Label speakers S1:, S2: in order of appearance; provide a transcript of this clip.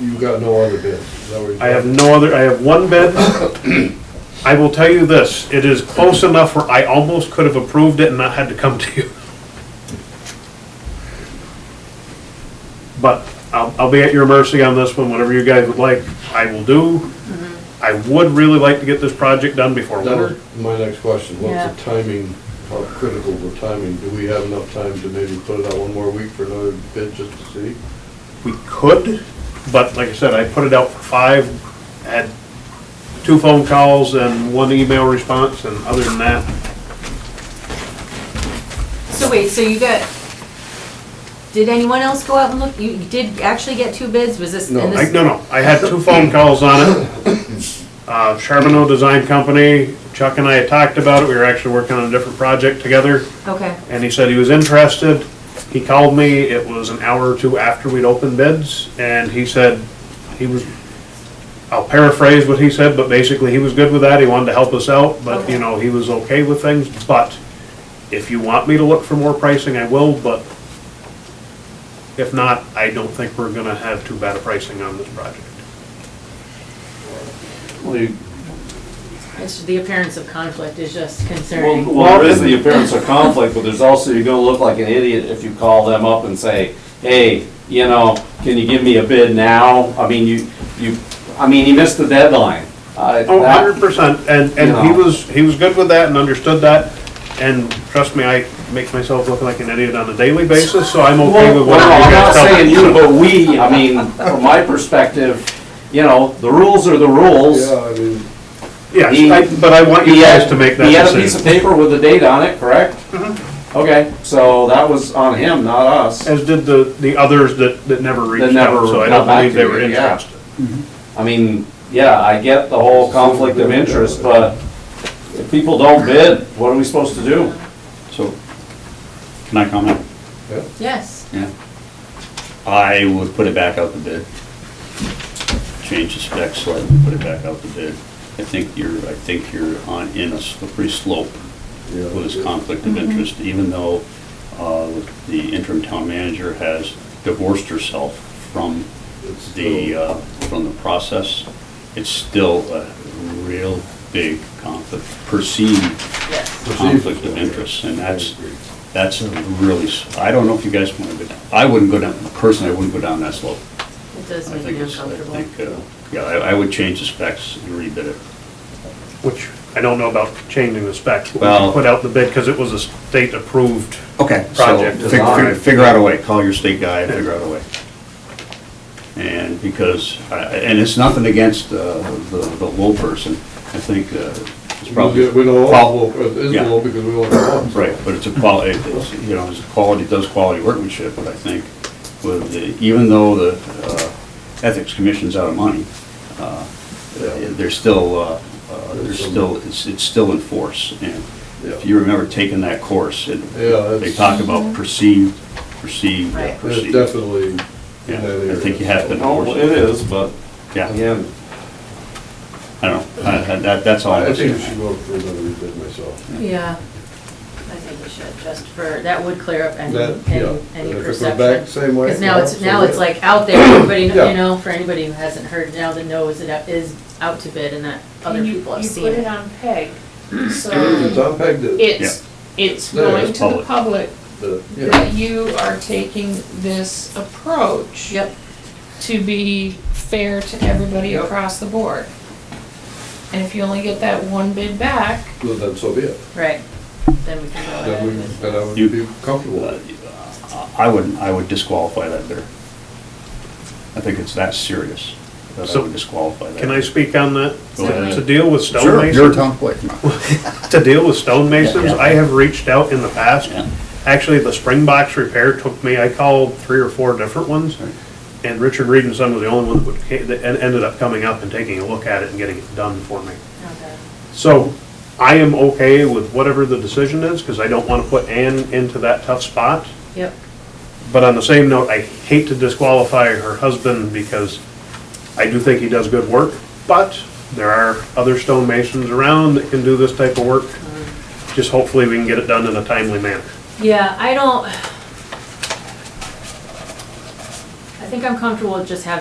S1: You got no other bids? Is that what you got?
S2: I have no other, I have one bid. I will tell you this, it is close enough where I almost could have approved it and not had to come to you. But I'll, I'll be at your mercy on this one, whatever you guys would like, I will do. I would really like to get this project done before
S1: That
S2: winter.
S1: was my next question,
S3: Yeah.
S1: what's the timing, how critical the timing? Do we have enough time to maybe put it out one more week for another bid just to see?
S2: We could, but like I said, I put it out for five, had two phone calls and one email response, and other than that,
S3: So wait, so you got, did anyone else go out and look? You did actually get two bids? Was this? and
S1: No,
S2: I,
S3: this-
S2: no, no, I had two phone calls on it. Uh, Charbonneau Design Company, Chuck and I had talked about it, we were actually working on a different project together,
S3: Okay,
S2: and he said he was interested. He called me, it was an hour or two after we'd opened bids, and he said, he was, I'll paraphrase what he said, but basically, he was good with that, he wanted to help us out, but, you know, he was okay with things, but if you want me to look for more pricing, I will, but if not, I don't think we're gonna have too bad a pricing on this project.
S4: Well, you-
S5: It's the appearance of conflict is just
S4: well,
S5: concerning.
S4: well, there is the appearance of conflict, but there's also, you're gonna look like an idiot if you call them up and say, hey, you know, can you give me a bid now? I mean, you, you, I mean, you missed the deadline. I-
S2: Oh,
S4: that-
S2: hundred percent, and, and he
S4: No.
S2: was, he was good with that and understood that, and trust me, I make myself look like an idiot on a daily basis, so I'm okay
S4: Well,
S2: with
S4: well,
S2: what you
S4: I'm
S2: guys
S4: not
S2: tell
S4: saying
S2: me.
S4: you, but we, I mean, from my perspective, you know, the rules are the rules.
S1: Yeah, I mean,
S2: Yes, I- but I want you
S4: He had-
S2: guys to make
S4: He had
S2: that
S4: a piece
S2: decision,
S4: of
S2: Mm-hmm.
S4: paper with a date on it, correct? Okay, so that was on him, not us.
S2: as did the, the others that, that never reached
S4: never
S2: out, so I
S4: got
S2: don't
S4: back
S2: believe
S4: to
S2: they
S4: you,
S2: were
S4: yeah.
S2: interested.
S4: I mean, yeah, I get the whole conflict of interest, but if people don't bid, what are we supposed to do?
S6: So, can I comment?
S5: Yes.
S6: Yeah. I would put it back out the bid. Change the specs slightly, put it back out the bid. I think you're, I think you're on, in a slippery slope
S1: yeah.
S6: with this conflict of interest, even though uh, the interim town manager has divorced herself from
S1: It's
S6: the,
S1: still-
S6: uh, from the process. It's still a real big conflict, perceived
S1: Perceived.
S6: conflict of interest, and that's,
S1: I agree.
S6: that's a really, s- I don't know if you guys want to go down, I wouldn't go down, personally, I wouldn't go down that slope.
S5: It does
S6: I
S5: make
S6: think
S5: me
S6: it's, I
S5: uncomfortable.
S6: think, uh, yeah, I I would change the specs and rebid it.
S2: Which, I don't know about changing the specs, but we
S6: Well-
S2: can put out the bid, because it was a state-approved,
S6: Okay.
S2: Project
S6: So, fig-
S4: design.
S6: fig- figure out a way, call your state guy and figure out a way. And because, I- and it's nothing against uh, the, the low person, I think uh, it's
S1: We
S6: probably.
S1: get- we know,
S6: qual-
S1: well, it is
S6: Yeah.
S1: low because we only have one. so-
S6: Right, but it's a quality, it's, you know, it's a quality, does quality workmanship, but I think with, the- even though the uh, Ethics Commission's out of money, uh, there's still, uh, uh, there's still, it's, it's still in force. And if you remember taking that course, and
S1: Yeah,
S6: they
S1: it's-
S6: talk about perceived, perceived, uh,
S5: Right.
S1: It's
S6: perceived.
S1: definitely. in
S6: Yeah,
S1: that area.
S6: I think you have to
S4: No,
S6: enforce
S4: it
S6: it.
S4: is, but
S6: Yeah,
S4: again,
S6: I don't know, I- I- that, that's all
S1: I
S6: I'm
S1: think we
S6: saying.
S1: should go for another rebid myself.
S5: Yeah. I think we should, just for, that would clear up any,
S1: That, yeah.
S5: any,
S1: And
S5: any
S1: if it goes back
S5: perception.
S1: same way.
S5: Because now it's,
S1: so
S5: now
S1: be
S5: it's
S1: it.
S5: like out there, everybody, kn-
S1: Yeah.
S5: you know, for anybody who hasn't heard, now the know is it out- is out to bid and that other
S7: And you-
S5: people have
S7: You
S5: seen
S7: put it
S5: it.
S7: on peg,
S1: It's
S7: so
S1: unpegged, it-
S7: it's, it's
S1: There,
S7: going
S1: it's
S7: to the
S6: public.
S7: public
S1: the- yeah.
S7: that you are taking this approach
S5: Yep,
S7: to be fair to everybody across the board. And if you only get that one bid back,
S1: Well, then so be it.
S5: right. Then we can go
S1: Then we,
S5: ahead with
S1: then I would
S6: You-
S1: be comfortable with
S6: Uh,
S1: it.
S6: I wouldn't, I would disqualify that bidder. I think it's that serious, that I
S2: So-
S6: would disqualify that.
S2: can I speak on that?
S6: Go ahead.
S2: To deal with
S6: Sure,
S2: stonemasons.
S6: your town, please.
S2: to deal with stonemasons,
S6: Yeah, yeah.
S2: I have reached out in the past.
S6: Yeah.
S2: Actually, the spring box repair took me, I called three or four different ones,
S6: Right.
S2: and Richard Reed and Son was the only one that would, ca- that en- ended up coming up and taking a look at it and getting it done for me.
S5: Okay.
S2: So I am okay with whatever the decision is, because I don't want to put Ann into that tough spot.
S5: Yep,
S2: But on the same note, I hate to disqualify her husband because I do think he does good work, but there are other stonemasons around that can do this type of work. Just hopefully we can get it done in a timely manner.
S5: yeah, I don't. I think I'm comfortable with just having